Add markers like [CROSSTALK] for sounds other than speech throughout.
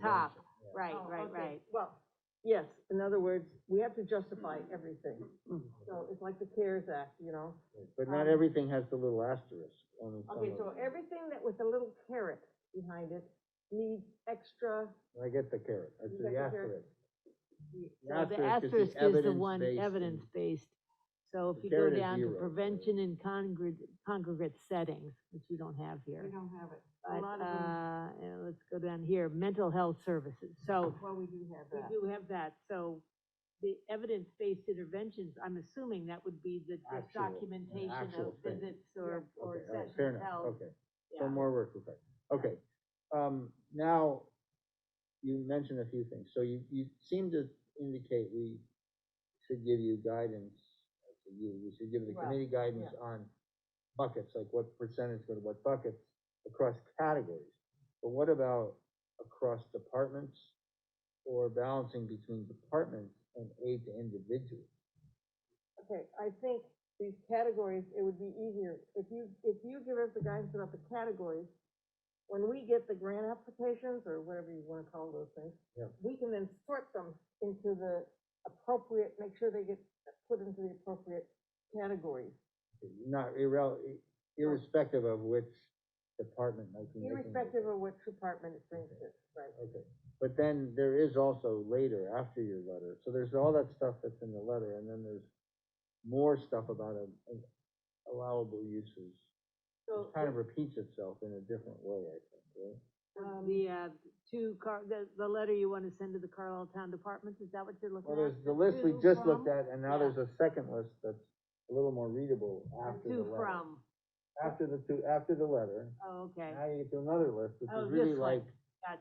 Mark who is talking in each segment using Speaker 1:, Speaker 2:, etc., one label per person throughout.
Speaker 1: top, right,
Speaker 2: Oh,
Speaker 1: right,
Speaker 2: okay.
Speaker 1: right.
Speaker 2: Well, yes, in other words, we have to justify everything, so it's like the CARES Act, you know?
Speaker 3: But not
Speaker 2: Um,
Speaker 3: everything has the little asterisk on some
Speaker 2: Okay,
Speaker 3: of
Speaker 2: so
Speaker 3: them.
Speaker 2: everything that with a little carrot behind it needs extra,
Speaker 3: I get the carrot, I
Speaker 2: You
Speaker 3: see the
Speaker 2: got the carrot.
Speaker 3: asterisk. The
Speaker 1: So the
Speaker 3: asterisk is
Speaker 1: asterisk
Speaker 3: the
Speaker 1: is the one,
Speaker 3: evidence-based and-
Speaker 1: evidence-based. So
Speaker 3: The
Speaker 1: if you go
Speaker 3: carrot is
Speaker 1: down to
Speaker 3: zero.
Speaker 1: prevention in congregate, congregate settings, which we don't have
Speaker 2: we
Speaker 1: here.
Speaker 2: don't have it. A
Speaker 1: But,
Speaker 2: lot of them,
Speaker 1: uh, and let's go down here, mental health services. So
Speaker 2: well, we do have
Speaker 1: we
Speaker 2: that.
Speaker 1: do have that, so the evidence-based interventions, I'm assuming that would be the the
Speaker 3: Actual- an
Speaker 1: documentation of
Speaker 3: actual thing.
Speaker 1: visits or, or
Speaker 3: Okay, all right, fair
Speaker 1: sessions
Speaker 3: enough,
Speaker 1: held.
Speaker 3: okay.
Speaker 1: Yeah.
Speaker 3: So more work required. Okay, um, now, you mentioned a few things, so you, you seem to indicate we should give you guidance, I say you, we should give the
Speaker 2: Well,
Speaker 3: committee guidance on buckets, like what percentage go to what buckets across categories. But what about across departments or balancing between departments and aid to individuals?
Speaker 2: Okay, I think these categories, it would be easier, if you, if you give us the guidance about the categories, when we get the grant applications, or whatever you wanna call those things,
Speaker 3: Yeah.
Speaker 2: we can then sort them into the appropriate, make sure they get put into the appropriate categories.
Speaker 3: Not irrel, irrespective of which department might be making. it.
Speaker 2: Irrespective of which department it brings it, right?
Speaker 3: Okay, but then there is also later, after your letter, so there's all that stuff that's in the letter, and then there's more stuff about a- a- allowable uses.
Speaker 2: So,
Speaker 3: It kind of repeats itself in a different way, I think, right?
Speaker 1: Um, The, uh, two car, the, the letter you wanna send to the Carlisle Town Departments, is that what you're looking
Speaker 3: Well,
Speaker 1: at?
Speaker 3: there's the list we
Speaker 2: to
Speaker 3: just
Speaker 2: from-
Speaker 3: looked at, and now there's a second list that's a little more readable after the
Speaker 1: To
Speaker 3: letter.
Speaker 1: from,
Speaker 3: After the two, after the letter,
Speaker 1: oh, okay,
Speaker 3: now you get to another list, which
Speaker 1: Oh,
Speaker 3: is really
Speaker 1: this one.
Speaker 3: like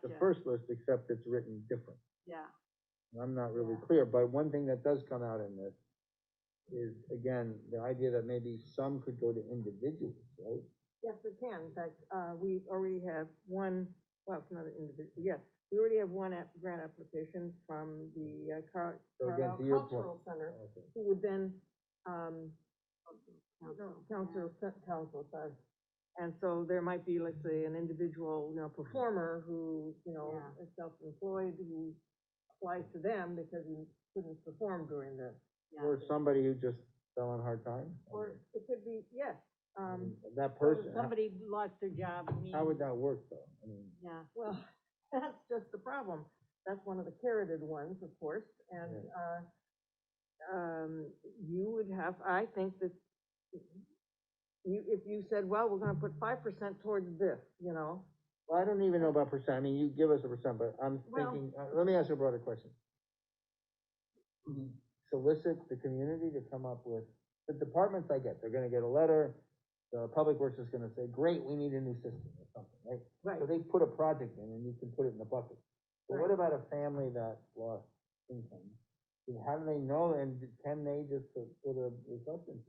Speaker 3: the
Speaker 1: gotcha,
Speaker 3: first list, except it's written different.
Speaker 1: yeah.
Speaker 3: and I'm not really
Speaker 1: Yeah.
Speaker 3: clear, but one thing that does come out in this is, again, the idea that maybe some could go to individuals, right?
Speaker 2: yes, we can, but, uh, we already have one, well, it's not an individual, yes, we already have one app, grant application from the, uh, Car-
Speaker 3: So again,
Speaker 2: Carlisle
Speaker 3: to your
Speaker 2: Cultural Center.
Speaker 3: Okay.
Speaker 2: who would then, um,
Speaker 1: Council.
Speaker 2: council, council, sorry. And so there might be, let's say, an individual, you know, performer who, you know,
Speaker 1: Yeah.
Speaker 2: is self-employed, who applies to them because he couldn't perform during the,
Speaker 1: Yeah.
Speaker 3: Or somebody who just fell on hard times.
Speaker 2: or it could be, yes, um,
Speaker 3: That
Speaker 1: Or
Speaker 3: person, how-
Speaker 1: Somebody lost their job, I mean.
Speaker 3: how would that work though? I mean,
Speaker 1: Yeah,
Speaker 2: well, [LAUGHS] that's just the problem. That's one of the carroted ones, of course, and, uh, um, you would have, I think that you, if you said, well, we're gonna put five percent towards this, you know,
Speaker 3: well, I don't even know about percent, I mean, you give us a percent, but I'm
Speaker 2: Well-
Speaker 3: thinking, uh, let me ask you a broader question. Mm-hmm. Solicit the community to come up with, the departments I get, they're gonna get a letter, the public works is gonna say, great, we need a new system or something, right?
Speaker 2: Right,
Speaker 3: So they put a project in and you can put it in the bucket. But what
Speaker 2: Right.
Speaker 3: about a family that lost income? And How do they know and can they just put, put a request in?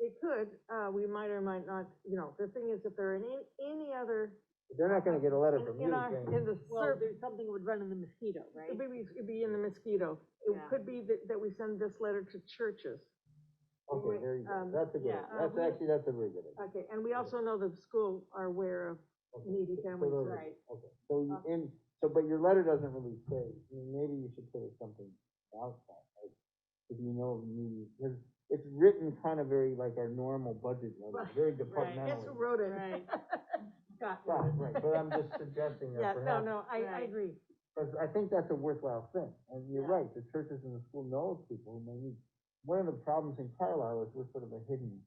Speaker 2: they could, uh, we might or might not, you know, the thing is, if there are any, any other,
Speaker 3: They're not gonna get a letter
Speaker 2: in-
Speaker 3: from
Speaker 2: in
Speaker 3: you
Speaker 2: our, in
Speaker 3: saying,
Speaker 2: the
Speaker 1: well,
Speaker 2: survey,
Speaker 1: there's something would run in the mosquito, right?
Speaker 2: it'd be, it'd be in the mosquito. It
Speaker 1: Yeah.
Speaker 2: could be that, that we send this letter to churches.
Speaker 3: okay, there you go,
Speaker 2: um,
Speaker 3: that's a good,
Speaker 1: yeah,
Speaker 2: uh,
Speaker 3: that's
Speaker 2: we-
Speaker 3: actually, that's a very good idea.
Speaker 2: Okay, and we also know the school are aware of
Speaker 3: Okay.
Speaker 2: needy
Speaker 3: So
Speaker 2: families,
Speaker 3: those are-
Speaker 1: Right,
Speaker 3: Okay, so you,
Speaker 2: Uh,
Speaker 3: in, so, but your letter doesn't really say, I mean, maybe you should put something outside, like, if you know, maybe, because it's written kind of very like our normal budget letter,
Speaker 2: Right,
Speaker 3: very
Speaker 2: Guess
Speaker 3: departmentally.
Speaker 2: who wrote it?
Speaker 1: [LAUGHS]
Speaker 2: [LAUGHS]
Speaker 1: right,
Speaker 2: Scott wrote
Speaker 3: Right,
Speaker 2: it.
Speaker 3: right, but I'm just suggesting
Speaker 2: [LAUGHS] Yeah,
Speaker 3: that
Speaker 2: no,
Speaker 3: perhaps
Speaker 2: no, I, I
Speaker 1: Right.
Speaker 2: agree.
Speaker 3: Because I think that's a worthwhile thing, and you're
Speaker 2: Yeah.
Speaker 3: right, the churches and the school knows people who may need. One of the problems in Carlisle is we're sort of a hidden,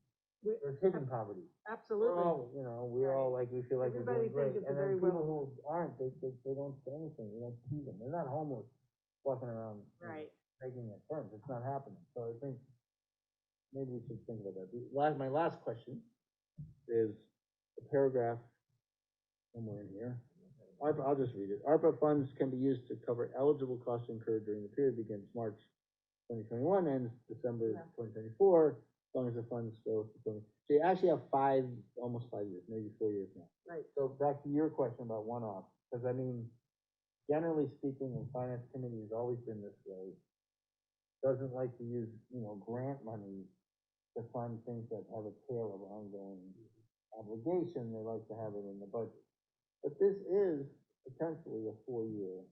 Speaker 2: We-
Speaker 3: there's hidden poverty. We're
Speaker 2: Absolutely.
Speaker 3: all, you know, we all like, we feel like we're
Speaker 2: Everybody
Speaker 3: doing great,
Speaker 2: thinks it's a
Speaker 3: and then
Speaker 2: very
Speaker 3: people who aren't, they, they, they don't say anything, you don't see them, they're not homeless, walking around. you know,
Speaker 1: right.
Speaker 3: Taking their turns, it's not happening, so I think maybe we should think about that. The Last, my last question is a paragraph somewhere in here. ARPA, I'll just read it. ARPA funds can be used to cover eligible costs incurred during the period begins March twenty twenty-one, ends December
Speaker 2: Yeah.
Speaker 3: twenty twenty-four, as long as the funds go to twenty. So you actually have five, almost five years, maybe four years now.
Speaker 2: Right.
Speaker 3: So back to your question about one-off, because I mean, generally speaking, and finance committee has always been this way, doesn't like to use, you know, grant money to fund things that have a tail of ongoing obligation, they like to have it in the budget. But this is potentially a four-year